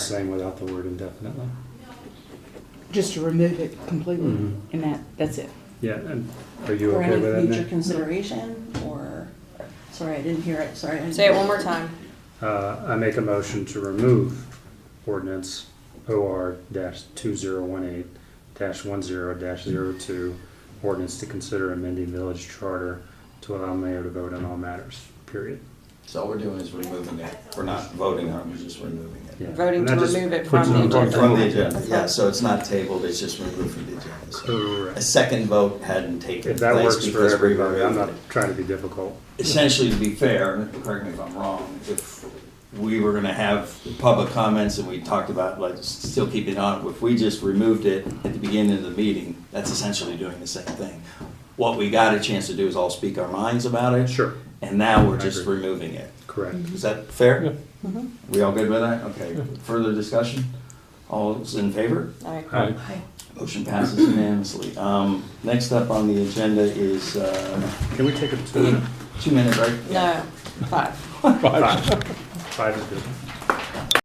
same without the word indefinitely. just to remove it completely, Mhm. and that, that's it. Yeah, and are you For okay any with that, future Nick? consideration, or, sorry, I didn't hear it, sorry. I- Say it one more time. Uh, I make a motion to remove ordinance OR dash two zero one eight dash one zero dash zero two, ordinance to consider amending village charter to allow mayor to vote on all matters, period. So all we're doing is removing it. We're not voting on it, we're just removing it. Yeah. Voting And that to just remove it puts from the on- agenda. From the agenda, Okay. yeah, so it's not tabled, it's just removed from the agenda. So A Correct. second vote hadn't taken If that place works for because we everybody, I'm removed not it. trying to be difficult. Essentially, to be fair, and correct me if I'm wrong, if we were gonna have public comments and we talked about like still keeping on, if we just removed it at the beginning of the meeting, that's essentially doing the same thing. What we got a chance to do is all speak our minds about it. Sure. And now I we're just agree. removing it. Correct. Mm-hmm. Is that fair? Mm-hmm. Yeah. We all good with that? Okay, further discussion? All's in favor? All right. Aye. Hi. Motion passes unanimously. Um, next up on the agenda is, uh, Can we take a two minute? two minute break? No, five. Five. Five is good.